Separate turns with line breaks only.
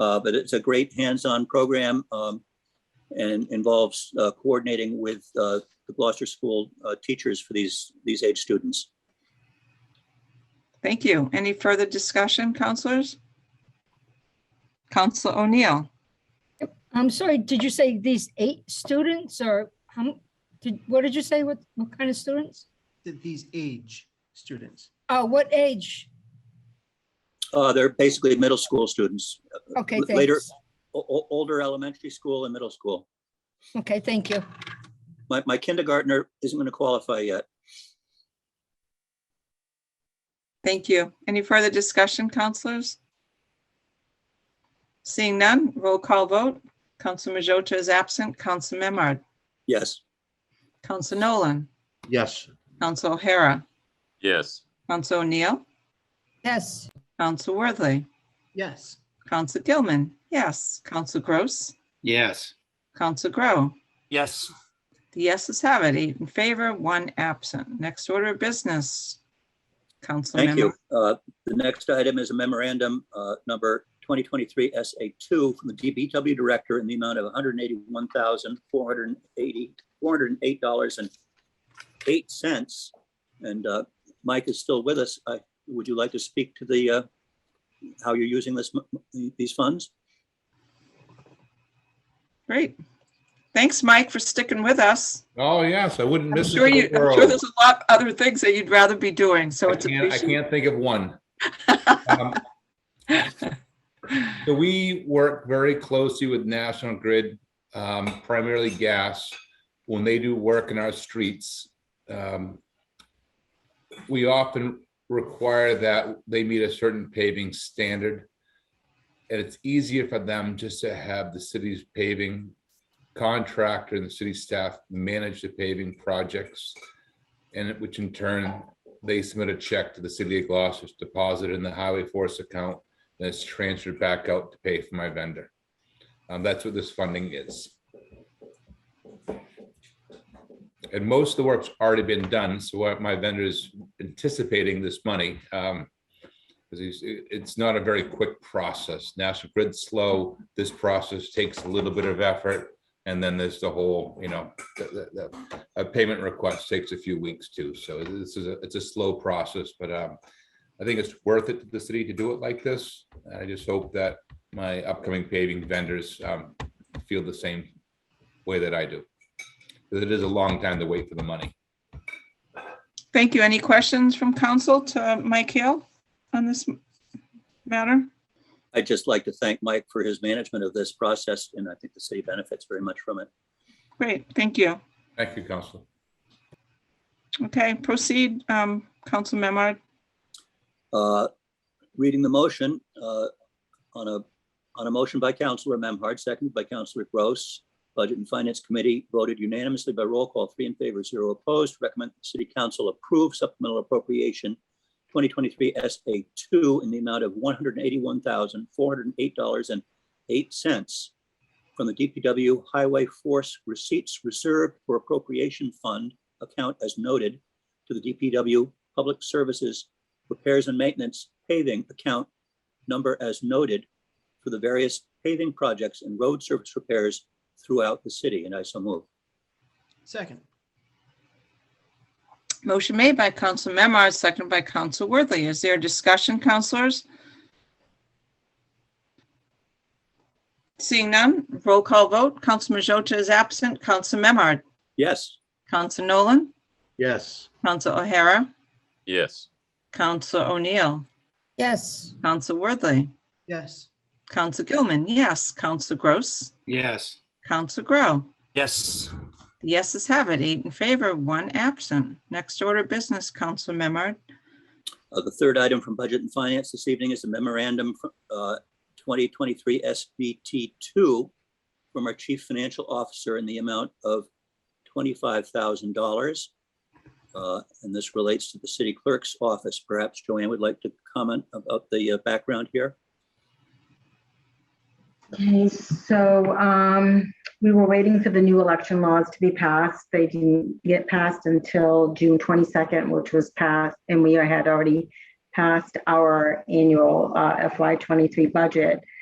Uh, But it's a great hands-on program um, and involves uh, coordinating with uh, the Gloucester School uh, teachers for these, these age students.
Thank you. Any further discussion, counselors? Counsel O'Neill,
I'm sorry, did you say these eight students or how, m- did, what did you say? What, what kind of students?
th- these age students.
Oh, what age?
Uh, They're basically middle school students,
Okay,
L- later-
thanks.
o- o- older elementary school and middle school.
Okay, thank you.
My, my kindergartner isn't going to qualify yet.
thank you. Any further discussion, counselors? Seeing none, roll call vote. Counsel Majota is absent. Counsel Memard,
Yes,
Counsel Nolan,
Yes.
Counsel O'Hara,
yes,
Counsel O'Neill,
Yes,
Counsel Worthley,
Yes.
Counsel Gilman, yes. Counsel Gross,
Yes.
Counsel Grow.
Yes.
The yeses have it, eight in favor, one absent. Next order of business. Counsel
thank you.
Memard,
Uh, The next item is a memorandum uh, number 2023 SA2 from the DBW Director in the amount of $181,480, $408.08. And uh, Mike is still with us. I- Would you like to speak to the, uh, how you're using this, m- these funds?
Great. Thanks, Mike, for sticking with us.
Oh, yes, I wouldn't
I'm
miss
sure you,
it. for the
I'm sure
world.
there's a lot other things that you'd rather be doing, so
I
it's
can't, I
appreciated.
can't think of one. Um, So we work very closely with National Grid, um, primarily gas, when they do work in our streets. um, We often require that they meet a certain paving standard. And it's easier for them just to have the city's paving contractor and the city staff manage the paving projects. And it- which in turn, they submit a check to the city of Gloucester, it's deposited in the highway force account and it's transferred back out to pay for my vendor. Um, that's what this funding is. And most of the work's already been done, so what my vendor is anticipating this money. Um, because he's, it- it's not a very quick process. National Grid's slow. This process takes a little bit of effort. And then there's the whole, you know, the, the, the, a payment request takes a few weeks too. So this is, a it's a slow process, but, um, I think it's worth it to the city to do it like this. I just hope that my upcoming paving vendors um, feel the same way that I do. 'Cause It is a long time to wait for the money.
Thank you. Any questions from council to Mike Hill on this m- matter?
I'd just like to thank Mike for his management of this process, and I think the city benefits very much from it.
Great, thank you.
Thank you, Council.
Okay, proceed, um, Counsel Memard.
Uh, Reading the motion uh, on a, on a motion by Counselor Memhard, seconded by Counselor Gross. Budget and Finance Committee voted unanimously by roll call, three in favor, zero opposed. Recommend the City Council approve supplemental appropriation 2023 SA2 in the amount of $181,408.08 from the DPW Highway Force Receipts Reserved for Appropriation Fund account as noted to the DPW Public Services repairs and maintenance paving account number as noted for the various paving projects and road surface repairs throughout the city, and I so move.
Second.
Motion made by Council Memard, seconded by Council Worthley. Is there discussion, councilors? Seeing none, roll call vote. Council Majota is absent. Council Memard,
Yes,
Council Nolan,
Yes.
Council O'Hara,
yes,
Council O'Neill,
yes,
Council Worthley,
Yes.
Council Gilman, yes. Council Gross,
Yes.
Council Grow.
Yes.
The yeses have it, eight in favor, one absent. Next order of business, Council Memard.
Uh, The third item from Budget and Finance this evening is a memorandum fr- uh, 2023 SBT2 from our Chief Financial Officer in the amount of $25,000. Uh, And this relates to the city clerk's office. Perhaps Joanne would like to comment about the uh, background here.
Okay, so um, we were waiting for the new election laws to be passed. They didn't get passed until June 22nd, which was passed, and we had already passed our annual uh, FY23 budget.